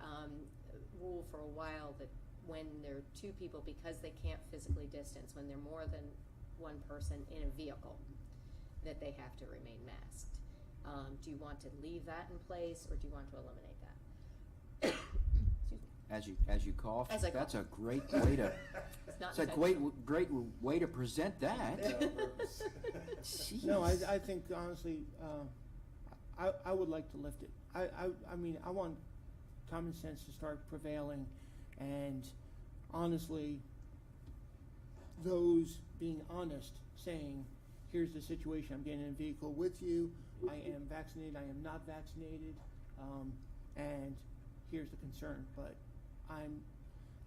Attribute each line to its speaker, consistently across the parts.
Speaker 1: um, for a while that when there are two people, because they can't physically distance, when they're more than one person in a vehicle, that they have to remain masked. Um, do you want to leave that in place or do you want to eliminate that? Excuse me.
Speaker 2: As you, as you cough,
Speaker 1: As I
Speaker 2: that's a great way to,
Speaker 1: It's not
Speaker 2: it's a great,
Speaker 1: intentional.
Speaker 2: great way to present that. Jeez.
Speaker 3: No, I, I think honestly, uh, I, I would like to lift it. I, I, I mean, I want common sense to start prevailing and honestly, those being honest, saying, here's the situation, I'm getting in a vehicle with you, I am vaccinated, I am not vaccinated, um, and here's the concern, but I'm,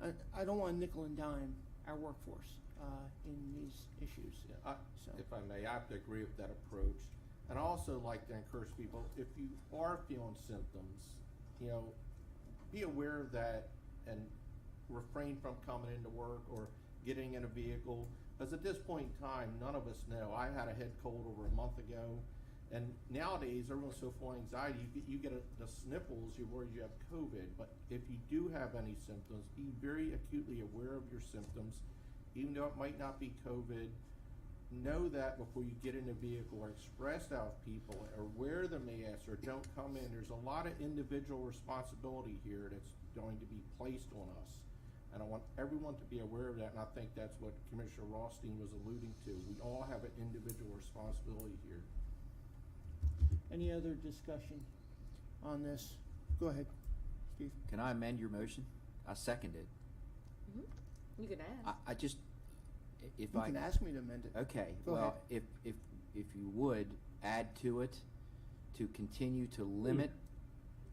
Speaker 3: I, I don't want nickel and dime our workforce, uh, in these issues, uh,
Speaker 4: I,
Speaker 3: so.
Speaker 4: if I may, I have to agree with that approach. And I also like to encourage people, if you are feeling symptoms, you know, be aware of that and refrain from coming into work or getting in a vehicle. Because at this point in time, none of us know. I had a head cold over a month ago. And nowadays, everyone's so full of anxiety, you get, you get a, the sniffles, you're worried you have COVID. But if you do have any symptoms, be very acutely aware of your symptoms, even though it might not be COVID know that before you get in a vehicle or express out with people or wear the mask or don't come in. There's a lot of individual responsibility here that's going to be placed on us. And I want everyone to be aware of that, and I think that's what Commissioner Rothstein was alluding to. We all have an individual responsibility here.
Speaker 3: Any other discussion on this? Go ahead, Steve.
Speaker 2: Can I amend your motion? I second it.
Speaker 1: Mm-hmm. You can ask.
Speaker 2: I, I just, i- if
Speaker 3: You
Speaker 2: I. Uh,
Speaker 3: can ask me to amend it.
Speaker 2: Okay,
Speaker 3: Go
Speaker 2: well, if, if, if you would, add to it, to continue to limit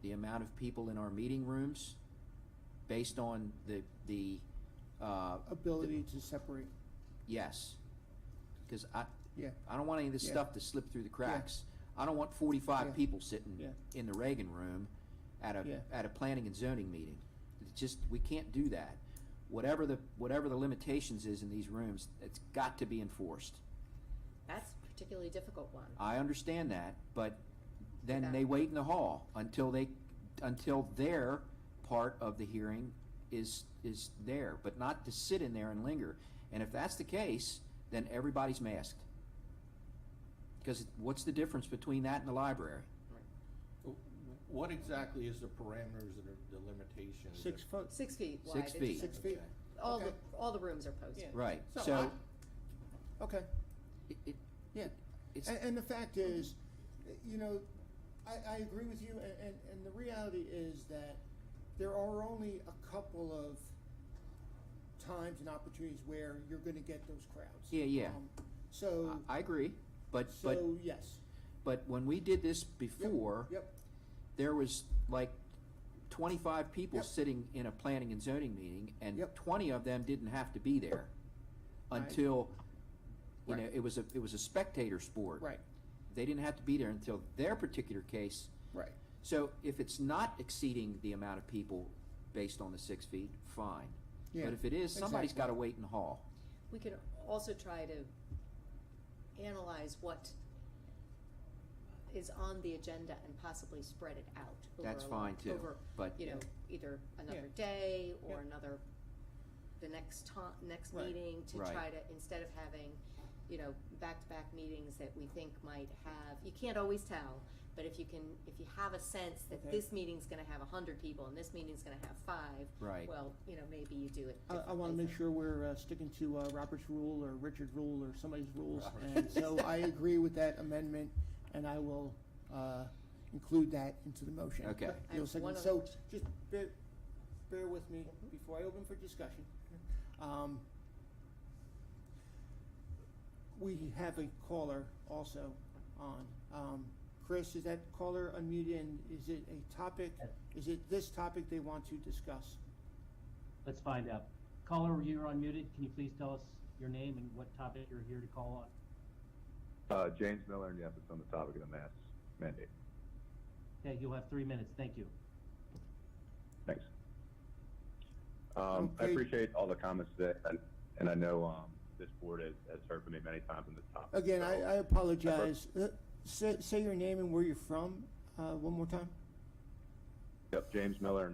Speaker 2: the amount of people in our meeting rooms based on the, the, uh,
Speaker 3: Ability to separate,
Speaker 2: yes. Cause I,
Speaker 3: yeah.
Speaker 2: I don't want any of this
Speaker 3: Yeah.
Speaker 2: stuff to slip through the cracks. I don't want forty-five
Speaker 3: Yeah.
Speaker 2: people sitting
Speaker 3: Yeah.
Speaker 2: in the Reagan room at a
Speaker 3: Yeah.
Speaker 2: at a planning and zoning meeting. It's just we can't do that. Whatever the whatever the limitations is in these rooms, it's got to be enforced.
Speaker 1: That's a particularly difficult one.
Speaker 2: I understand that, but then
Speaker 1: Yeah.
Speaker 2: they wait in the hall until they until their part of the hearing is is there, but not to sit in there and linger. And if that's the case, then everybody's masked. Because what's the difference between that and the library?
Speaker 4: Wh- What exactly is the parameters and the limitations?
Speaker 3: Six foot,
Speaker 1: Six feet wide.
Speaker 2: Six
Speaker 1: It's
Speaker 2: feet.
Speaker 1: just-
Speaker 3: six feet,
Speaker 4: Okay.
Speaker 1: All the,
Speaker 3: Okay.
Speaker 1: all the rooms are posted.
Speaker 3: Yeah.
Speaker 2: Right.
Speaker 3: So
Speaker 2: So
Speaker 3: okay,
Speaker 2: it, it,
Speaker 3: yeah.
Speaker 2: it's
Speaker 3: And, and the fact is, you know, I, I agree with you, and, and, and the reality is that there are only a couple of times and opportunities where you're gonna get those crowds.
Speaker 2: Yeah, yeah.
Speaker 3: Um, So,
Speaker 2: I, I agree, but but
Speaker 3: so, yes.
Speaker 2: but when we did this
Speaker 3: Yep,
Speaker 2: before,
Speaker 3: Yep,
Speaker 2: there was like twenty-five people
Speaker 3: Yep.
Speaker 2: sitting in a planning and zoning meeting, and
Speaker 3: Yep.
Speaker 2: twenty of them didn't have to be there
Speaker 3: Right.
Speaker 2: until you know
Speaker 3: Right.
Speaker 2: it was a it was a spectator sport.
Speaker 3: right,
Speaker 2: They didn't have to be there until their particular case.
Speaker 3: right.
Speaker 2: So if it's not exceeding the amount of people based on the six feet, fine.
Speaker 3: Yeah,
Speaker 2: But if it is, somebody's
Speaker 3: exactly.
Speaker 2: got to wait and haul.
Speaker 1: We could also try to analyze what is on the agenda and possibly spread it out. over
Speaker 2: That's
Speaker 1: a lo-
Speaker 2: fine, too,
Speaker 1: Over,
Speaker 2: but-
Speaker 1: you know, either another day or another, the next time, next
Speaker 3: Right.
Speaker 1: meeting to
Speaker 2: Right.
Speaker 1: try to, instead of having, you know, back-to-back meetings that we think might have, you can't always tell, but if you can, if you have a sense that
Speaker 3: Okay.
Speaker 1: this meeting's gonna have a hundred people and this meeting's gonna have five,
Speaker 2: Right.
Speaker 1: well, you know, maybe you do it
Speaker 3: I, I wanna
Speaker 1: differently
Speaker 3: make
Speaker 1: for-
Speaker 3: sure we're, uh, sticking to, uh, Robert's rule or Richard's rule or somebody's rules,
Speaker 4: Robert.
Speaker 3: and so I agree with that amendment, and I will, uh, include that into the motion.
Speaker 2: Okay.
Speaker 1: I
Speaker 3: You'll
Speaker 1: have one
Speaker 3: second,
Speaker 1: other
Speaker 3: so,
Speaker 1: question. Mm-hmm.
Speaker 3: just bear, bear with me before I open for discussion. Um, we have a caller also on, um, Chris, is that caller unmuted, and is it a topic, is it this topic they want to discuss?
Speaker 5: Let's find out. Caller, you're unmuted. Can you please tell us your name and what topic you're here to call on?
Speaker 6: Uh, James Miller, and yes, it's on the topic of the mask mandate.
Speaker 5: Okay, you'll have three minutes. Thank you.
Speaker 6: Thanks. Um, I
Speaker 3: Okay.
Speaker 6: appreciate all the comments today, and, and I know, um, this board has, has heard from me many times on this topic.
Speaker 3: Again, I,
Speaker 6: so-
Speaker 3: I apologize. Uh, Say, say your name and where you're from, uh, one more time.
Speaker 6: Yep, James Miller, and